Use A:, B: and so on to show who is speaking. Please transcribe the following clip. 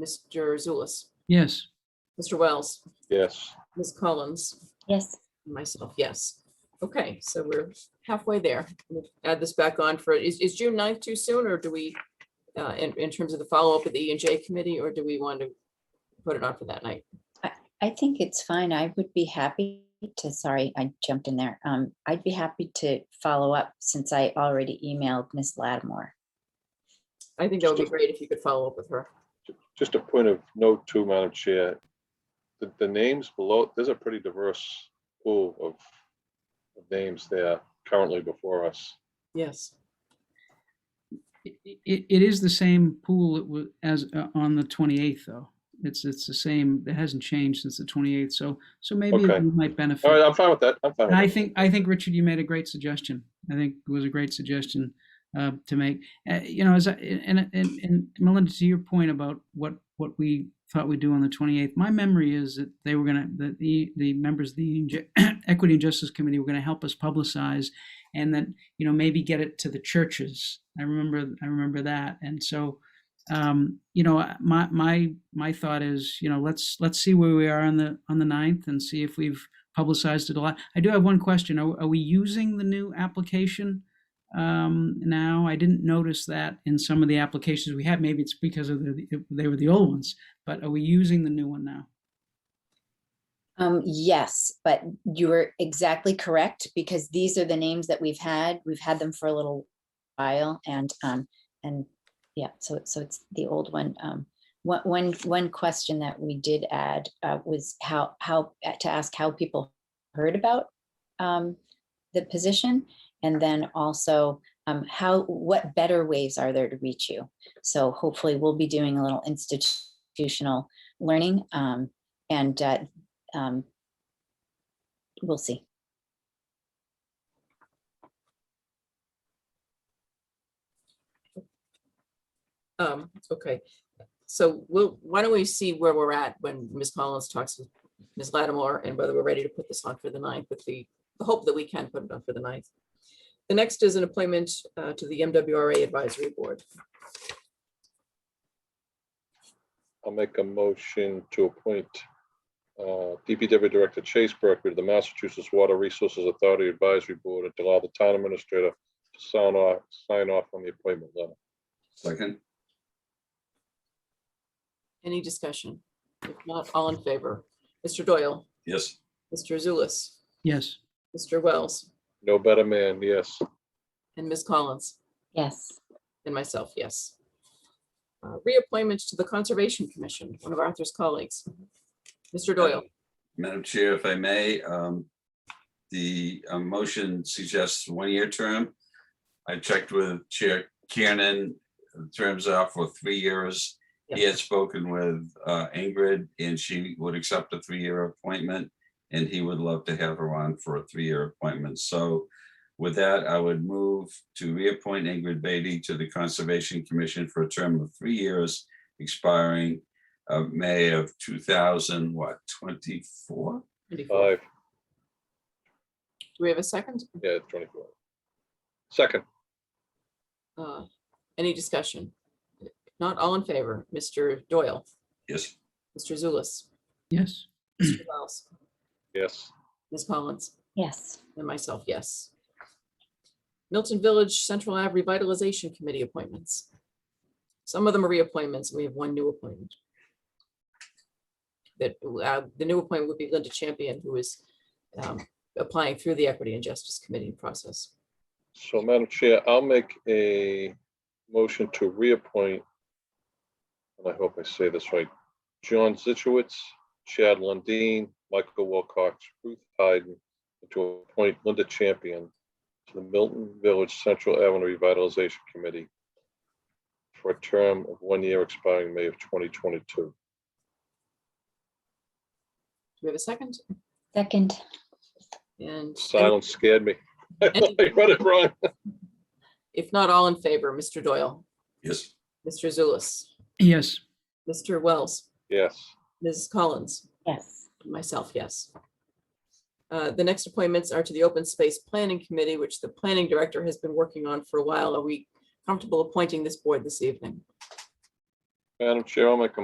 A: Mr. Zulus,
B: Yes.
A: Mr. Wells,
C: Yes.
A: Ms. Collins,
D: Yes,
A: and myself, yes. Okay, so we're halfway there. We'll Add this back on for, is, is June 9th too soon, or do we, uh, in, in terms of the follow-up of the E and J committee, or do we want to put it on for that night?
D: I think it's fine. I would be happy to, sorry, I jumped in there. Um, I'd be happy to follow up since I already emailed Miss Lattimore.
A: I think that would be great if you could follow up with her.
C: Just a point of note too, Madam Chair. The, the names below, there's a pretty diverse pool of of names there currently before us.
A: Yes.
B: It, it, it is the same pool it was as uh, on the 28th though. It's, it's the same, it hasn't changed since the 28th. So, so maybe
C: Okay.
B: it might
C: All right,
B: benefit.
C: I'm fine with that. I'm fine
B: And I
C: with that.
B: think, I think Richard, you made a great suggestion. I think it was a great suggestion uh, to make. Uh, you know, as I, and, and, and Melinda, to your point about what, what we thought we'd do on the 28th, my memory is that they were gonna, that the, the members of the E and J- Equity and Justice Committee were gonna help us publicize and then, you know, maybe get it to the churches. I remember, I remember that. And so, um, you know, I- my, my, my thought is, you know, let's, let's see where we are on the, on the 9th and see if we've publicized it a lot. I do have one question. Are, are we using the new application um, now? I didn't notice that in some of the applications we had. Maybe it's because of the, they were the old ones, but are we using the new one now?
D: Um, yes, but you were exactly correct because these are the names that we've had. We've had them for a little while and, um, and yeah, so, so it's the old one. Um, one, one, one question that we did add, uh, was how, how, uh, to ask how people heard about, um, the position. And then also, um, how, what better ways are there to reach you? So hopefully we'll be doing a little institutional learning, um, and, uh, um, we'll see.
A: Um, okay, so we'll, why don't we see where we're at when Ms. Collins talks with Ms. Lattimore and whether we're ready to put this on for the ninth with the, the hope that we can put it on for the ninth. The next is an appointment uh, to the MWRA Advisory Board.
C: I'll make a motion to appoint uh, DPW Director Chase Berkeley to the Massachusetts Water Resources Authority Advisory Board and to allow the town administrator to sign off, sign off on the appointment letter.
E: Second,
A: Any discussion? If not, all in favor? Mr. Doyle,
E: yes,
A: Mr. Zulus,
B: Yes.
A: Mr. Wells,
C: No better man, yes.
A: and Ms. Collins,
D: Yes,
A: and myself, yes. Uh, Reappointment to the Conservation Commission, one of Arthur's colleagues. Mr. Doyle,
E: Madam Chair, if I may, um, the uh, motion suggests one-year term. I checked with Chair Kiernan, the terms are for three years. He
A: Yeah.
E: had spoken with uh, Ingrid, and she would accept a three-year appointment, and he would love to have her on for a three-year appointment. So with that, I would move to reappoint Ingrid Beatty to the Conservation Commission for a term of three years, expiring of May of two thousand, what, twenty-four?
A: do
C: Five,
A: we have a second?
C: yeah, 24. Second,
A: Uh, Any discussion? If Not all in favor, Mr. Doyle,
E: Yes,
A: Mr. Zulus,
B: Yes.
A: Mr. Wells,
C: yes.
A: Ms. Collins,
D: yes,
A: and myself, yes. Milton Village Central Ave Revitalization Committee appointments. Some of them are reappointments, and we have one new appointment. That, uh, the new appointment would be Linda Champion, who is um, applying through the Equity and Justice Committee process.
C: So Madam Chair, I'll make a motion to reappoint, and I hope I say this right, John Zichowitz, Chad Lundeen, Michael Wilcox, Ruth Hyden, and to appoint Linda Champion to the Milton Village Central Avenue Revitalization Committee for a term of one year expiring May of 2022.
A: Do we have a second?
D: second,
A: And
C: Silence scared me. I thought I read it wrong.
A: if not all in favor, Mr. Doyle,
E: yes,
A: Mr. Zulus,
B: Yes.
A: Mr. Wells,
C: Yes.
A: Ms. Collins,
D: yes,
A: myself, yes. Uh, The next appointments are to the Open Space Planning Committee, which the planning director has been working on for a while. Are we comfortable appointing this board this evening?
C: Madam Chair, I'll make a